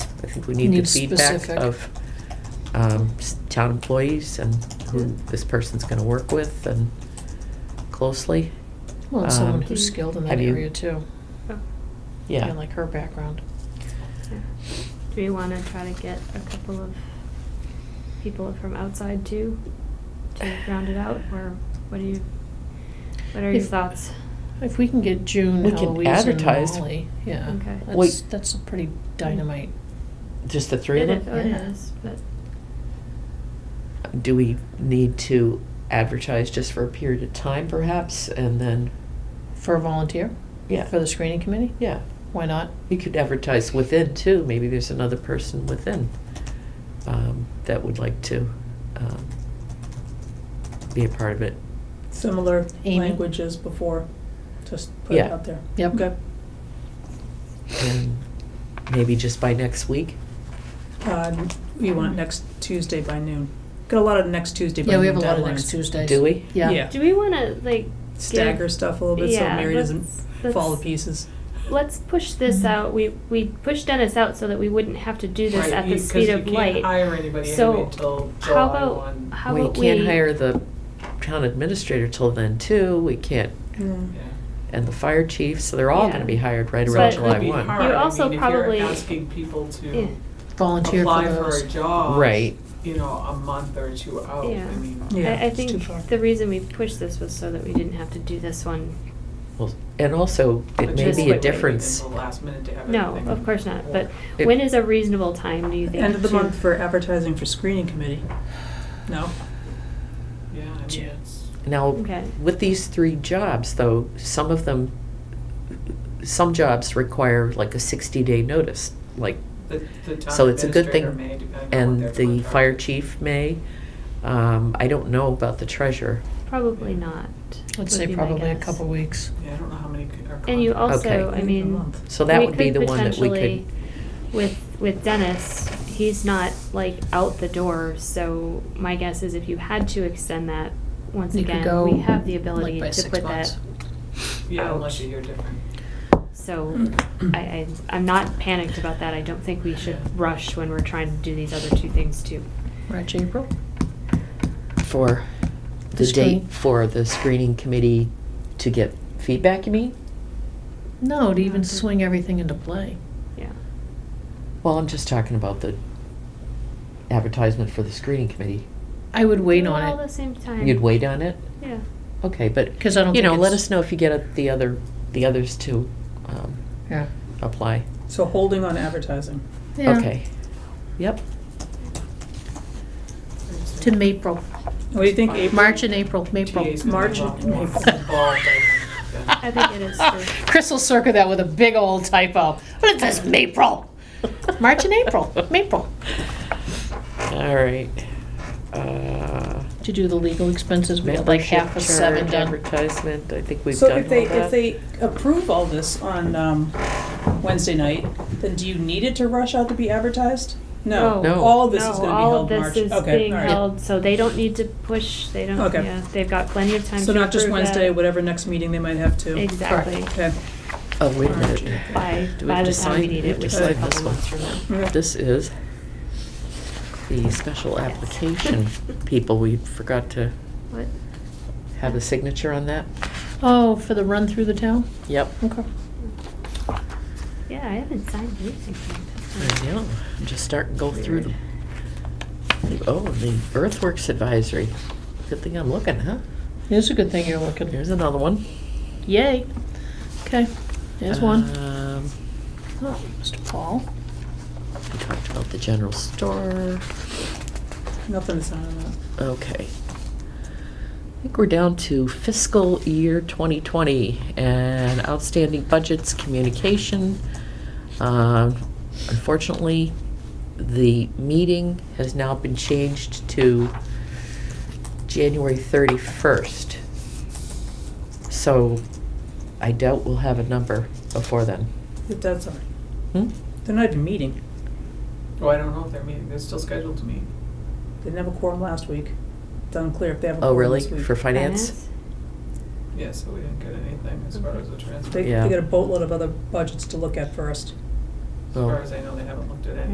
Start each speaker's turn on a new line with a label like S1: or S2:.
S1: think we need the
S2: Need
S1: feedback
S2: specific.
S1: of um, s- town employees and who
S2: Yeah.
S1: this person's gonna work with and closely.
S2: Well, and someone
S1: Um,
S2: who's skilled in that
S1: have you-
S2: area too.
S3: Oh,
S1: Yeah.
S2: And like her background.
S3: yeah. Do we want to try to get a couple of people from outside too to round it out, or what do you? What are your
S2: If-
S3: thoughts?
S2: If we can get June,
S1: We can
S2: Eloise and
S1: advertise.
S2: Molly, yeah.
S3: Okay.
S2: That's,
S1: Wait.
S2: that's a pretty dynamite.
S1: Just the three of
S3: It is-
S1: them?
S3: oh, it
S2: Yeah.
S3: is, but
S1: Do we need to advertise just for a period of time perhaps and then,
S2: For a volunteer?
S1: yeah,
S2: For the screening committee?
S1: yeah.
S2: Why not?
S1: You could advertise within too, maybe there's another person within um, that would like to um, be a part of it.
S4: similar
S2: Amy?
S4: languages before, just put it
S1: Yeah.
S4: out there.
S2: Yep.
S4: Okay.
S1: And maybe just by next week?
S4: Uh, We want next Tuesday by noon. Got a lot of next Tuesday by noon
S2: Yeah, we have a lot of next
S4: deadlines.
S2: Tuesdays.
S1: Do we?
S2: Yeah.
S4: Yeah.
S3: do we want to like
S4: Stagger
S3: give-
S4: stuff a little bit so
S3: Yeah,
S4: Mary doesn't
S3: let's- let's-
S4: fall to pieces.
S3: Let's push this
S5: Mm-hmm.
S2: Mhm.
S3: out. We we pushed Dennis out so that we wouldn't have to do this
S5: Right,
S3: at
S5: you-
S3: the
S5: 'cause
S3: speed
S5: you
S3: of
S5: can't
S3: light.
S5: hire anybody
S3: So,
S5: anyway till
S3: how
S5: July
S3: about-
S5: 1.
S3: How
S1: we
S3: about
S1: can't
S3: we-
S1: hire the town administrator till then too. We can't,
S4: Mm.
S5: Yeah.
S1: and the fire chief. So they're all
S3: Yeah.
S1: going to be hired right
S3: So
S1: around
S3: it
S1: July
S5: It'd be
S1: one,
S5: hard.
S3: You
S5: I
S3: also
S5: mean,
S3: probably-
S5: If you're asking people
S3: Yeah.
S5: to
S2: Volunteer for
S5: apply for
S2: those.
S5: a job.
S1: right?
S5: You know, a month or two out,
S3: Yeah.
S5: I mean.
S4: Yeah,
S3: I, I
S4: it's too
S3: think
S4: far.
S3: the reason we pushed this was so that we didn't have to do this one.
S1: Well, and also it may
S5: but just
S1: be
S3: wait,
S1: a
S5: quit waiting
S1: difference.
S5: until the last minute to have
S3: No,
S5: everything
S3: of course not. But
S1: It-
S3: when is a reasonable time? Do you think?
S4: End of the
S3: to-
S4: month for advertising for screening committee. No?
S5: Yeah, I mean, it's.
S1: Now,
S3: Okay.
S1: with these three jobs, though, some of them, some jobs require like a sixty-day notice, like,
S5: The, the town
S1: So it's a good
S5: administrator
S1: thing-
S5: may, depending on what
S1: and
S5: their
S1: the fire
S5: contract is.
S1: chief may. Um, I don't know about the treasurer.
S3: Probably not. would
S2: I'd say
S3: be my
S2: probably a
S3: guess.
S2: couple weeks.
S5: Yeah, I don't know how many c- are.
S3: And you
S5: contract-
S3: also,
S1: Okay.
S3: I mean,
S4: Month.
S1: So that
S3: we
S1: would be
S3: could
S1: the one that we
S3: potentially-
S1: could.
S3: With, with Dennis, he's not like out the door, so my guess is if you had to extend that, once
S2: You could
S3: again,
S2: go,
S3: we have the
S2: like,
S3: ability
S2: by
S3: to
S2: six
S3: put
S2: months.
S3: that.
S5: Yeah,
S3: out.
S5: unless you hear different.
S3: So
S4: Mm.
S3: I, I, I'm not panicked about that. I don't think we should rush when we're trying to do these other two things too.
S2: March, April?
S1: For
S2: The
S1: the
S2: screen-
S1: date for the screening committee to get feedback, you mean?
S2: No, to even
S3: Mhm.
S2: swing everything into play.
S3: Yeah.
S1: Well, I'm just talking about the advertisement for the screening committee.
S2: I would wait
S3: Do
S2: on
S3: All
S2: it.
S3: the same time.
S1: You'd wait on it?
S3: Yeah.
S1: Okay, but,
S2: 'Cause I don't
S1: you know,
S2: think
S1: let
S2: it's-
S1: us know if you get the other, the others to um,
S2: Yeah.
S1: apply.
S4: So holding on advertising.
S2: Yeah.
S1: Okay. Yep.
S2: To April,
S4: What do you think, April?
S2: March and April, April.
S5: TA's gonna
S4: March
S5: be involved-
S4: and
S5: involved,
S4: April.
S5: I think, yeah.
S3: I think it is true.
S2: Chris will circle that with a big old typo. But it says April. March and April, April.
S1: All right. Uh,
S2: To do the legal expenses, we have like
S1: Membership
S2: half of seven
S1: charge,
S2: done.
S1: advertisement, I think we've
S4: So
S1: done all
S4: if they,
S1: that.
S4: if they approve all this on um, Wednesday night, then do you need it to rush out to be advertised? No.
S3: No.
S1: No.
S4: All of this
S3: No,
S4: is gonna be
S3: all of
S4: held
S3: this
S4: March.
S3: is
S4: Okay,
S3: being
S4: all right.
S3: held, so they don't need to push, they don't,
S4: Okay.
S3: yeah, they've got plenty of time to
S4: So not just
S3: approve that.
S4: Wednesday, whatever next meeting they might have to.
S3: Exactly,
S4: Okay.
S1: Oh, wait a
S4: March.
S1: minute.
S3: by,
S1: Do we
S3: by
S1: have
S3: the
S1: to
S3: time we
S1: sign-
S3: need
S1: we have
S3: it,
S1: to
S3: which is a
S1: sign this one?
S3: couple months from now.
S1: This is the special
S3: Yes.
S1: application people. We forgot to
S3: What?
S1: have a signature on that.
S2: Oh, for the run through the town?
S1: Yep.
S2: Okay.
S3: Yeah, I haven't signed anything from
S1: I
S3: this one.
S1: know. I'm just starting to go through
S3: Weird.
S1: them. Oh, the earthworks advisory. Good thing I'm looking, huh?
S2: It is a good thing you're looking.
S1: Here's another one.
S2: Yay. Okay, there's one.
S1: Um,
S2: Oh, Mr. Paul.
S1: we talked about the general store.
S4: Nothing to sign on that.
S1: Okay. I think we're down to fiscal year 2020 and outstanding budgets, communication. Um, Unfortunately, the meeting has now been changed to January 31st. So I doubt we'll have a number before then.
S4: If That's all right.
S1: Hmm?
S4: They're not even meeting.
S5: Well, Oh, I don't know if they're meeting, they're still scheduled to meet.
S4: They didn't have a quorum last week. It's unclear if they have a
S1: Oh,
S4: quorum
S1: really?
S4: this week.
S1: For finance?
S5: Yeah, so we didn't get anything as far as the transfer.
S4: They,
S1: Yeah.
S4: they got a boatload of other budgets to look at first.
S5: As far
S1: Oh.
S5: as I know, they haven't looked at any.